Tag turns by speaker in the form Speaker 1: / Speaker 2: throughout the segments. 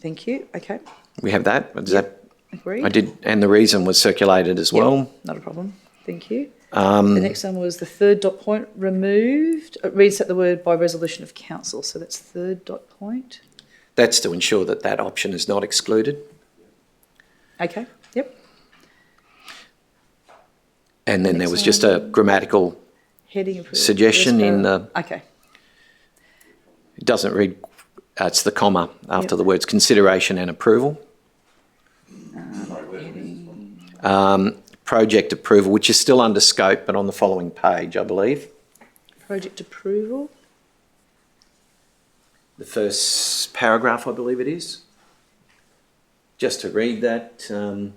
Speaker 1: Thank you. Okay.
Speaker 2: We have that. Does that?
Speaker 1: Agreed.
Speaker 2: I did, and the reason was circulated as well. Um,
Speaker 1: Not a problem. Thank you. the next one was the third dot point removed. It reads out the word by resolution of council. So that's third dot point.
Speaker 2: That's to ensure that that option is not excluded.
Speaker 1: Okay. Yep.
Speaker 2: And then there was just a grammatical,
Speaker 1: Heading approved.
Speaker 2: Suggestion
Speaker 1: First
Speaker 2: in
Speaker 1: para- Okay.
Speaker 2: it doesn't read, uh, it's the comma after the words consideration and approval. Um, project approval, which is still under scope, but on the following page, I believe.
Speaker 1: Project approval.
Speaker 2: The first paragraph, I believe it is. Just to read that, um,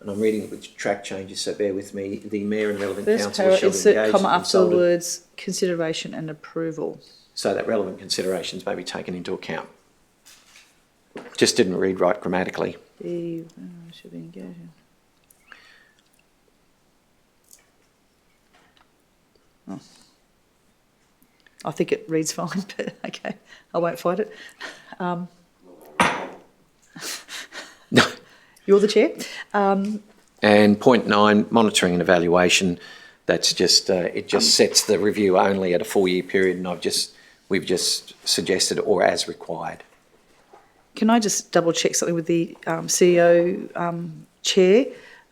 Speaker 2: and I'm reading it with track changes, so bear with me. The mayor and relevant
Speaker 1: First
Speaker 2: council
Speaker 1: para,
Speaker 2: shall engage
Speaker 1: insert
Speaker 2: and
Speaker 1: comma after the
Speaker 2: consulted.
Speaker 1: words consideration and approval.
Speaker 2: so that relevant considerations may be taken into account. Just didn't read right grammatically.
Speaker 1: The uh, should be engaging. Oh. I think it reads fine, but okay, I won't fight it. Um, you're the chair. Um,
Speaker 2: And point nine, monitoring and evaluation. That's just uh, it. Just sets the review only at a four-year period, and I've just we've just suggested or as required.
Speaker 1: can I just double check something with the um, CEO um, chair?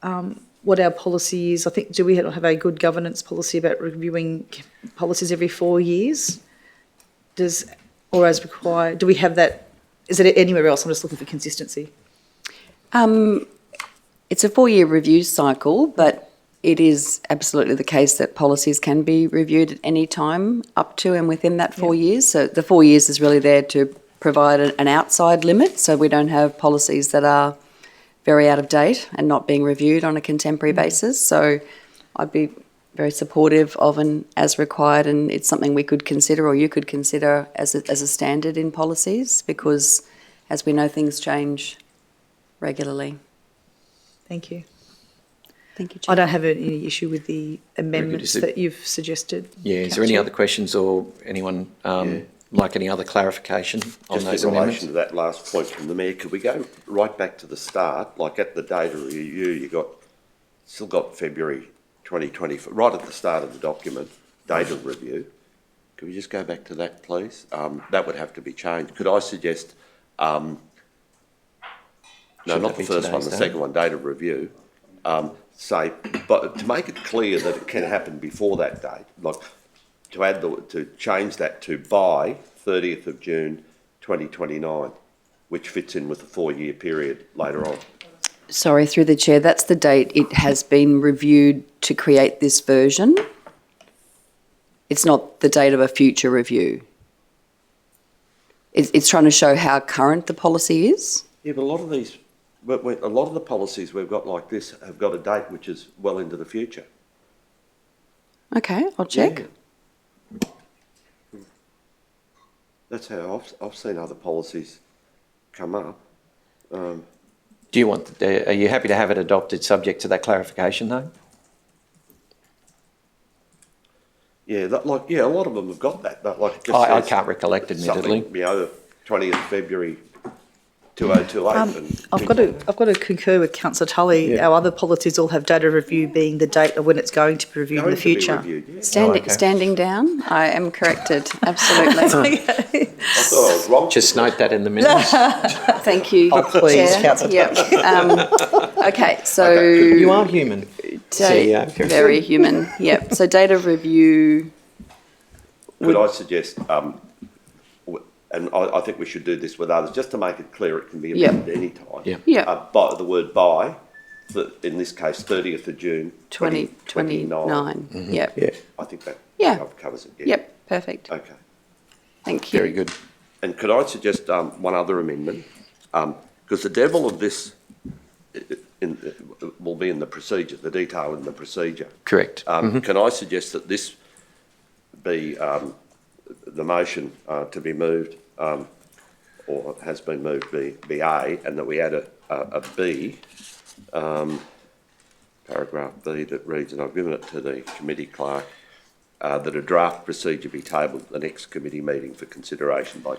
Speaker 1: Um, what our policy is? I think do we have a good governance policy about reviewing policies every four years? does, or as required, do we have that, is it anywhere else? I'm just looking for consistency.
Speaker 3: It's a four-year review cycle, but it is absolutely the case that policies can be reviewed at any time up to and within that four years. So the four years is really there to provide an an outside limit, so we don't have policies that are very out of date and not being reviewed on a contemporary basis. So I'd be very supportive of an as required, and it's something we could consider or you could consider as a, as a standard in policies because, as we know, things change regularly.
Speaker 1: Thank you.
Speaker 3: Thank you, Chair.
Speaker 1: I don't have any issue with the amendments
Speaker 2: Is it-
Speaker 1: that you've suggested.
Speaker 2: Yeah. Is there any
Speaker 1: Councillor.
Speaker 2: other questions or anyone um, like any other clarification on
Speaker 4: Just
Speaker 2: those
Speaker 4: in
Speaker 2: amendments?
Speaker 4: relation to that last point from the mayor, could we go right back to the start, like at the data review, you got, still got February twenty twenty, right at the start of the document, data review. Could we just go back to that, please? Um, that would have to be changed. Could I suggest, um, no,
Speaker 2: Should
Speaker 4: not
Speaker 2: that
Speaker 4: the
Speaker 2: be
Speaker 4: first one,
Speaker 2: today's
Speaker 4: the
Speaker 2: date?
Speaker 4: second one, data review, um, say, but to make it clear that it can happen before that date, like, to add the, to change that to by thirtieth of June, twenty twenty-nine, which fits in with the four-year period later on.
Speaker 3: Sorry, through the chair, that's the date it has been reviewed to create this version. It's not the date of a future review. It's, it's trying to show how current the policy is.
Speaker 4: Yeah, but a lot of these, but, we- a lot of the policies we've got like this have got a date which is well into the future.
Speaker 3: Okay, I'll check.
Speaker 4: Yeah. That's how I've, I've seen other policies come up.
Speaker 2: Do you want? The, are you happy to have it adopted, subject to that clarification, though?
Speaker 4: Yeah, that, like, yeah, a lot of them have got that, that like. it just
Speaker 2: I, I
Speaker 4: says
Speaker 2: can't recollect, admittedly.
Speaker 4: something, You know, twentieth February, two oh two eight. and
Speaker 1: Um, I've got to, I've got to concur with councillor Tully. Our other policies all have data review being the date of when it's going to be reviewed in
Speaker 4: Going
Speaker 1: the
Speaker 4: to be
Speaker 1: future.
Speaker 4: reviewed, yeah.
Speaker 3: Standing,
Speaker 2: okay.
Speaker 3: standing down, I am corrected, absolutely.
Speaker 4: I thought I was wrong.
Speaker 2: Just note that in the minutes.
Speaker 3: Thank you.
Speaker 2: Oh, please,
Speaker 3: Chair.
Speaker 2: Councillor
Speaker 3: Yep, um, Okay, so.
Speaker 2: you are human.
Speaker 3: da-
Speaker 2: CEO.
Speaker 3: Very human, yep. So date of review,
Speaker 4: Could I suggest, um, w- and I, I think we should do this with others, just to make it clear, it can be
Speaker 3: Yeah.
Speaker 4: amended any time.
Speaker 2: Yeah.
Speaker 3: Yeah.
Speaker 4: Uh, by, the word by, th- in this case, thirtieth of June, twenty twenty-nine.
Speaker 3: 2029, yep.
Speaker 4: I think that
Speaker 3: Yeah.
Speaker 4: cov- covers it, yeah.
Speaker 3: Yep, perfect.
Speaker 4: Okay.
Speaker 3: Thank you.
Speaker 2: Very good.
Speaker 4: And could I suggest um, one other amendment? Because the devil of this i- i- in, uh, will be in the procedure, the detail in the procedure.
Speaker 2: Correct.
Speaker 4: Um, Can I suggest that this be um, the motion uh, to be moved, um, or has been moved, be, be A, and that we add a, a a B, um, paragraph B that reads, and I've given it to the committee clerk, uh, that a draft procedure be tabled at the next committee meeting for consideration by